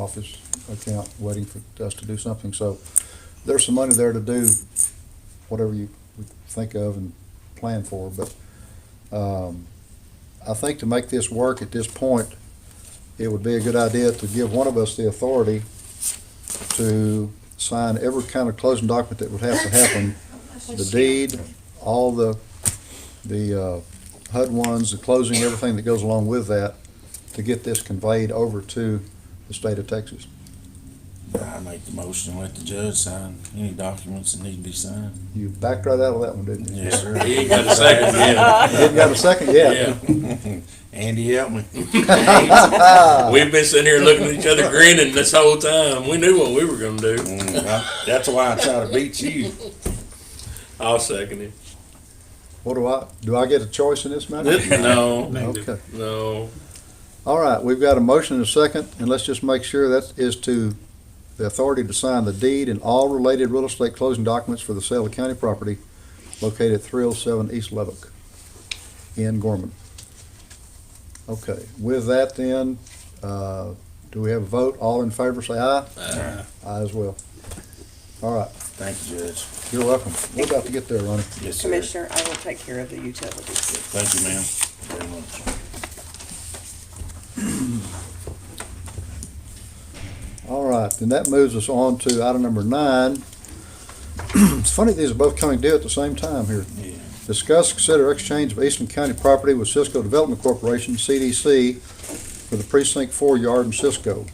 office account, waiting for us to do something. So there's some money there to do whatever you would think of and plan for, but um, I think to make this work at this point, it would be a good idea to give one of us the authority to sign every kind of closing document that would have to happen. The deed, all the, the uh, HUD ones, the closing, everything that goes along with that, to get this conveyed over to the state of Texas. I make the motion and let the judge sign any documents that need to be signed. You backed right out of that one, didn't you? Yes, sir. He ain't got a second yet. You Didn't got a second yet? Yeah. Andy, help me. We've been sitting here looking at each other grinning this whole time. We knew what we were gonna do. Mm, I- That's why I try to beat you. I'll second it. What do I, do I get a choice in this matter? No, Okay. no. All right, we've got a motion and a second, and let's just make sure that is to the authority to sign the deed and all related real estate closing documents for the sale of county property located at three oh seven East Lubbock in Gorman. Okay, with that then, uh, do we have a vote? All in favor, say aye. Aye. Aye as well. All right, Thank you, Judge. you're welcome. We're about to get there, Ronnie. Yes, sir. Commissioner, I will take care of the utilities. Thank you, ma'am. Very much. All right, then that moves us on to item number nine. It's funny, these are both coming due at the same time here. Yeah. Discuss, consider exchange of Eastern County property with Cisco Development Corporation, CDC, for the precinct four yard in Cisco.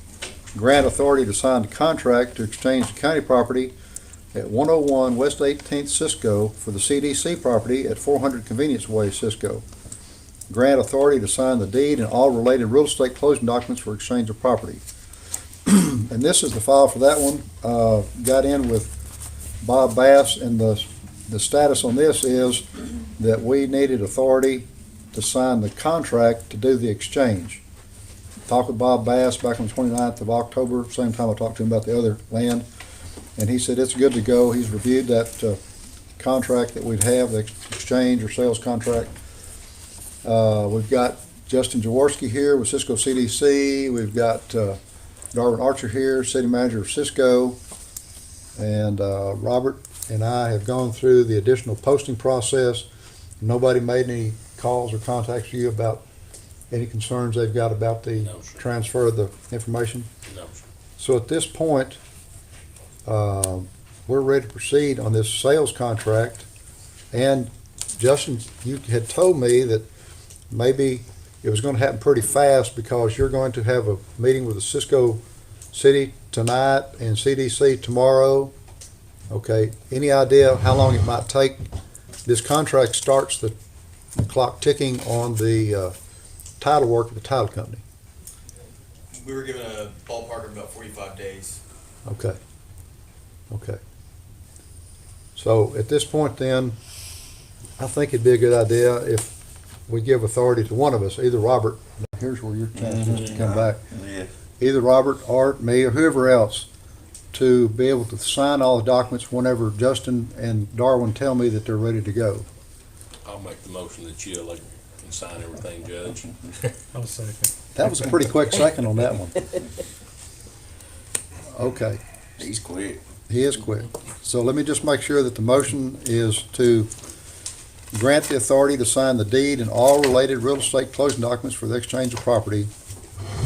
Grant authority to sign the contract to exchange the county property at one oh one West Eighteenth Cisco for the CDC property at four hundred Convenience Way Cisco. Grant authority to sign the deed and all related real estate closing documents for exchange of property. And this is the file for that one. Uh, got in with Bob Bass and the, the status on this is that we needed authority to sign the contract to do the exchange. Talked with Bob Bass back on the 29th of October, same time I talked to him about the other land. And he said it's good to go. He's reviewed that uh, contract that we'd have, the ex- exchange or sales contract. Uh, We've got Justin Jaworski here with Cisco CDC. We've got uh, Darwin Archer here, city manager of Cisco. And uh, Robert and I have gone through the additional posting process. Nobody made any calls or contacts to you about any concerns they've got about the No, sir. transfer of the information? No, So at this point, uh, we're ready to proceed on this sales contract. And Justin, you had told me that maybe it was gonna happen pretty fast because you're going to have a meeting with the Cisco City tonight and CDC tomorrow. Okay, any idea how long it might take? This contract starts the the clock ticking on the uh, title work of the title company. We were given a ballpark of about forty-five days. Okay. Okay. So at this point then, I think it'd be a good idea if we give authority to one of us, either Robert, now here's where your chance is to come back, Yeah. either Robert, Art, me, or whoever else, to be able to sign all the documents whenever Justin and Darwin tell me that they're ready to go. I'll make the motion that you like can sign everything, Judge. I'll second. That was a pretty quick second on that one. Okay. He's quick. He is quick. So let me just make sure that the motion is to grant the authority to sign the deed and all related real estate closing documents for the exchange of property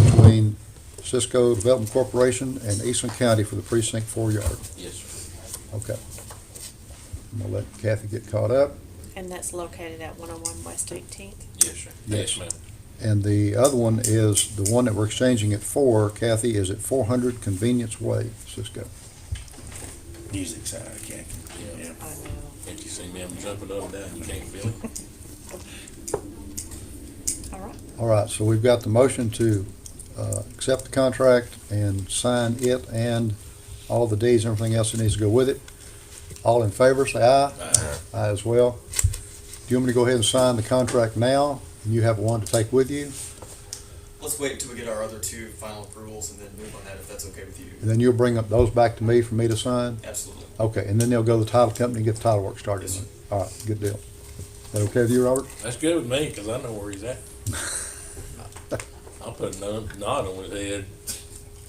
between Cisco Development Corporation and Eastern County for the precinct four yard. Yes, sir. Okay. I'm gonna let Kathy get caught up. And that's located at one oh one West Eighteenth. Yes, sir. Yes. Yes, ma'am. And the other one is, the one that we're exchanging it for, Kathy, is at four hundred Convenience Way, Cisco. He's excited, Kathy. Yeah. Yeah. I know. If you see me, I'm jumping up and down. You can't feel it. All right. All right, so we've got the motion to uh, accept the contract and sign it and all the deeds and everything else that needs to go with it. All in favor, say aye. Aye as well. Do you want me to go ahead and sign the contract now? And you have one to take with you, Let's wait until we get our other two final approvals and then move on that if that's okay with you. and then you'll bring up those back to me for me to sign? Absolutely. Okay, and then they'll go to the title company and get the title work started. Yes, sir. All right, good deal. That okay with you, Robert? That's good with me, cause I know where he's at. I'll put a nod nod on his head.